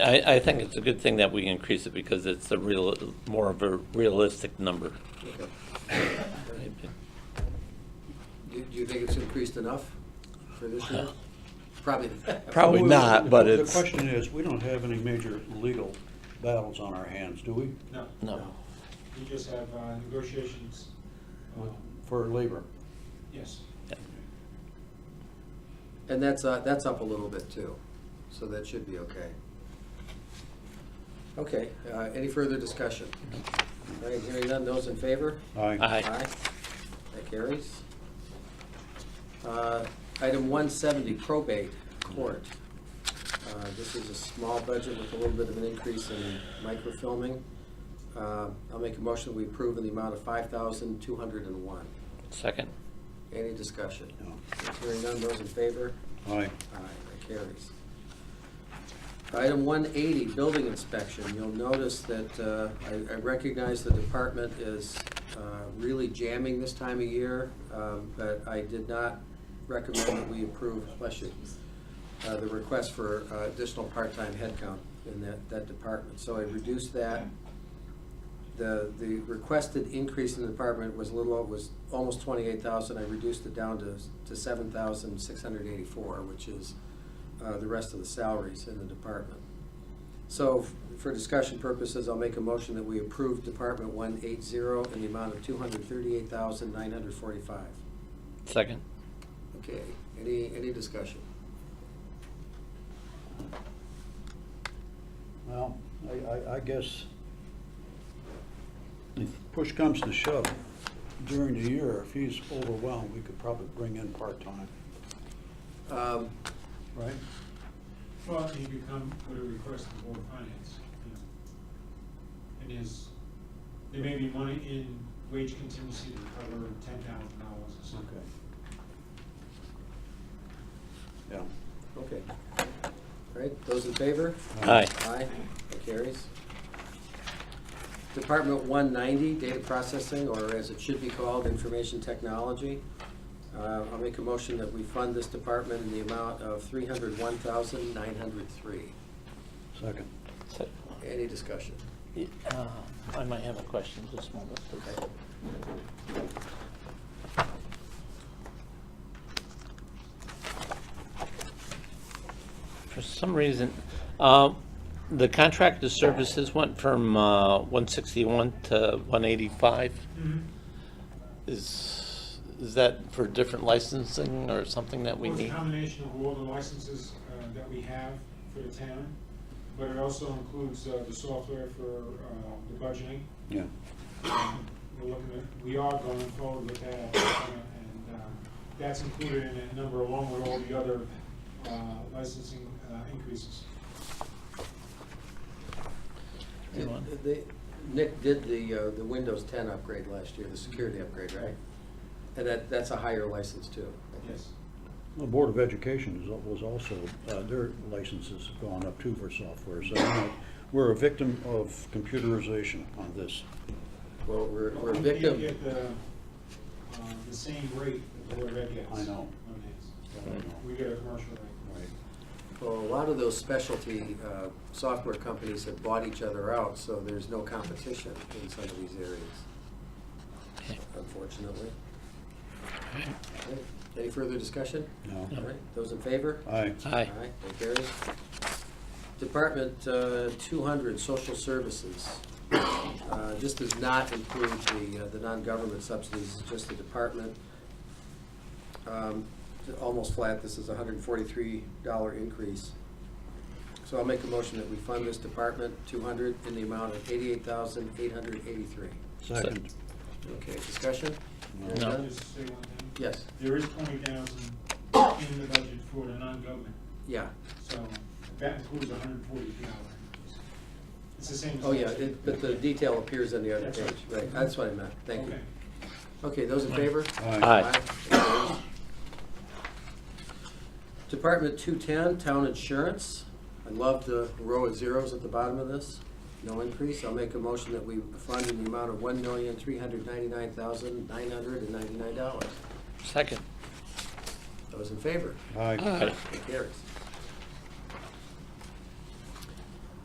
I, I think it's a good thing that we increase it because it's a real, more of a realistic number. Okay. Do do you think it's increased enough for this year? Probably. Probably Well, not, the- but the- it's- The question is, we don't have any major legal battles on our hands, do we, No, No. we just have uh, negotiations. with- um, for labor? Yes, And that's, uh, that's up a little bit too, so that should be okay. Okay, uh, any further discussion? All right, hearing none, those in favor? Aye. Aye. That carries. Uh, Item 170, probate court. Uh, This is a small budget with a little bit of an increase in microfilming. Uh, I'll make a motion, we approve in the amount of 5201 Second. Any discussion? No. Hearing none, those in favor? Aye. Aye, that carries. Item 180, building inspection. You'll notice that uh, I I recognize the department is uh, really jamming this time of year, um, but I did not recommend that we approve, bless you, uh, the request for uh, additional part-time headcount in that that department. So I reduced that. The the requested increase in the department was a little, was almost 28,000. I reduced it down to to 7,684, which is uh, the rest of the salaries in the department. So f- for discussion purposes, I'll make a motion that we approve Department 180 in the amount of 238,945. Second. Okay, any, any discussion? Well, I, I, I guess if push comes to shove, during the year, if he's overwhelmed, we could probably bring in part-time, Um, right? well, he could come with a request to the Board of Finance, you know. And there's, there may be money in wage contingency to cover ten thousand dollars or Okay. something. Yeah. Okay. All right, those in favor? Aye. Aye, that carries. Department 190, data processing, or as it should be called, information technology. Uh, I'll make a motion that we fund this department in the amount of 301903 Second. Se- Any discussion? uh, I might have a question just a moment. Okay. For some reason, um, the contracted services went from uh, 161 to 185. Mm-hmm. Is, is that for different licensing or something that we Well, it's a need? combination of all the licenses uh, that we have for the town, but it also includes uh, the software for uh, the budgeting. Yeah. Um, We're looking at, we are going forward with that, uh, and um, that's included in that number along with all the other uh, licensing uh, increases. Good one. They- Nick did the, uh, the Windows 10 upgrade last year, the security upgrade, right? And that, that's a higher license too. Yes. The Board of Education is, was also, uh, their licenses have gone up too for software, so you know, we're a victim of computerization on this. Well, we're, we're a We victim. can't get the, uh, the same rate that the Board of Ed gets. I know. on these. I don't know. We get a commercial rate. Right. Well, a lot of those specialty uh, software companies have bought each other out, so there's no competition in some of these areas, unfortunately. Okay, Any further discussion? No. All right, those in favor? Aye. Aye. All right, that carries. Department uh, 200, Social Services. Uh, This does not include the, uh, the non-government subsidies, it's just the department. Um, Almost flat, this is a $143 increase. So I'll make a motion that we fund this department, 200, in the amount of 88,883. Second. Okay, discussion? No. No. Can I Just say one thing. Yes, There is twenty thousand in the budget for the non-government, yeah. so that includes a hundred and forty thousand. It's the same as. Oh, yeah, last year. it- but the detail appears on the other That's page, right. right, that's what I meant, thank you. Okay. Okay, those in favor? Aye. Aye. Aye. Department 210, Town Insurance. I love the row of zeros at the bottom of this. No increase. I'll make a motion that we fund in the amount of $1,399,999. Second. Those in favor? Aye. Aye. It carries.